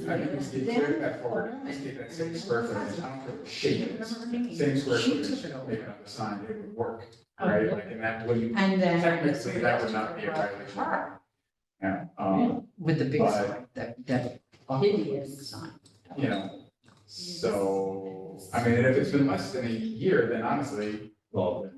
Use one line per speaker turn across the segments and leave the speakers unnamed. fact, it's the exact back part, it's the exact same square footage, I don't care what shape it is, same square
She
footage,
took it over.
maybe on the sign, it would work, right, like, and that wouldn't,
And then.
technically, that would not be a violation. Yeah, um,
With the big
But-
sign, that, that.
Hideous.
Sign.
you know, so, I mean, if it's been less than a year, then honestly,
Well,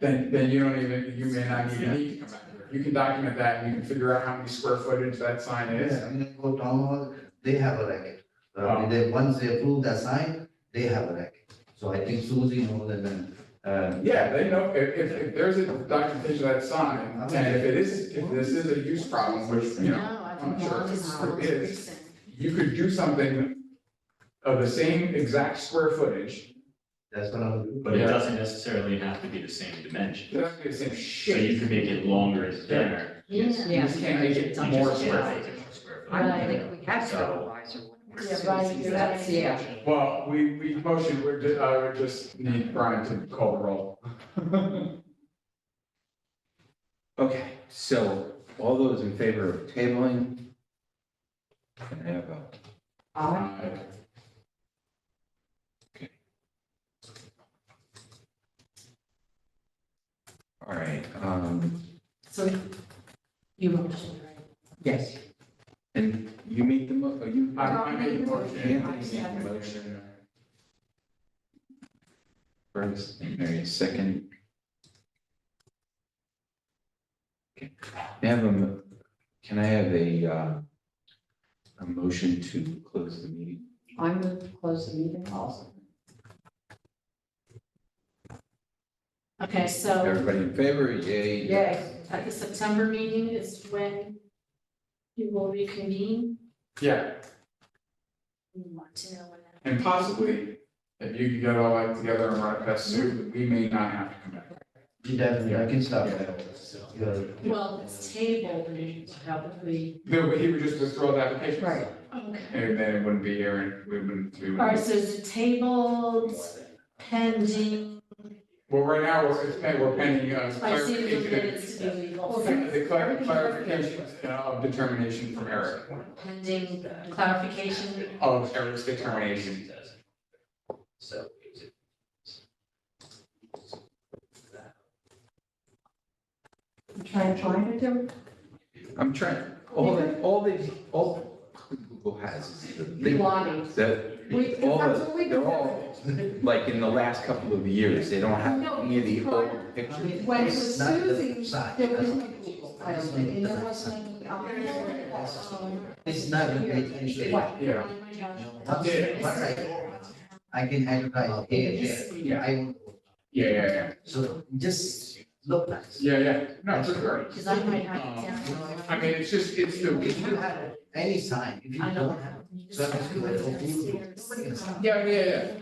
then, then you don't even, you may not even need to come back here. You can document that, and you can figure out how many square footage that sign is,
Yeah, I mean, they go town hall, they have a racket. Uh, they, once they approve that sign, they have a racket. So I think Susie knows and then, uh.
Yeah, they know, if, if, if there's a documentation of that sign, and if it is, if this is a use problem, which, you know,
No, I
I'm
think
sure
mom
it's-
is always
it is.
recent.
you could do something of the same exact square footage,
That's what I'm.
but it
Yeah.
doesn't necessarily have to be the same dimension.
it doesn't be the same
So you
shape.
can make it longer and thinner.
Yeah.
You just can't make it
You
more
just
square
can't
footage.
make it more square
I
footage.
don't think we have
So-
supervisor.
Yeah, right, you're right.
Yeah.
Well, we, we motioned, we're, ju- I would just need Brian to call the roll.
Okay, so all those in favor of tabling? Can I have a,
Uh,
all right, um,
So you motion, right? Yes.
and you made the mo, oh, you.
I, I made a motion.
Anthony made the motion first, and Mary second. Okay, May I have a, mo- can I have a, uh, a motion to close the meeting?
I move to close the meeting also.
Okay, so
Everybody in favor, yay?
Yes.
at the September meeting is when you will reconvene.
Yeah,
We want to know when that.
and possibly, if you could get all that together and write a best suit, we may not have to come back.
Definitely, I can stop that. You're-
Well, it's tabled and probably.
No, but he would just withdraw the application.
Right.
Okay.
And then it wouldn't be here and we wouldn't, we
All right,
wouldn't.
so is it tabled pending?
Well, right now, we're, it's, pen- we're pending, uh,
I see the
clarification.
minutes to be legal.
The clar- clarification of determination from Eric,
Pending clarification.
of Eric's determination.
So.
I'm trying to find it. there.
I'm trying, all that, all that, all Google has is the link
Lottie. We-
that, all,
that's what we
the- they're
do.
all, like, in the last couple of years, they don't have
No,
any of the
prior-
old
I
pictures.
mean,
When it
it's
was
not the
Susie,
sign,
There
that's
was no
what it is.
Google, I don't think, and there wasn't any. um,
It's not a great issue.
What?
Yeah.
Once-
Yeah.
once I- I can advertise here, there. I won't.
Yeah, yeah, yeah,
So just look nice.
yeah, yeah, no, for sure.
Because I might have it
Um,
down.
I mean, it's just, it's the,
If you have any sign, if you
I
don't have, so I'm just gonna open
know.
yeah, yeah,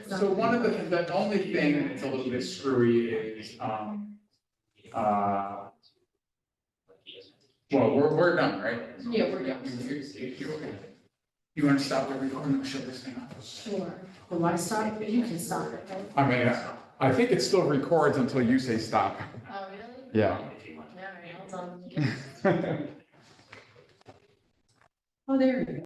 yeah, so one of the, the only thing that's a little bit screwy is, um, uh, well, we're, we're done, right?
Yeah, we're done.
You- you- you- You wanna stop the recording, I'll shut this thing off?
Sure. Well, I start, you can start it, right?
I mean, I think it still records until you say stop.
Oh, really?
Yeah.
All right, hold on.
Oh, there you go.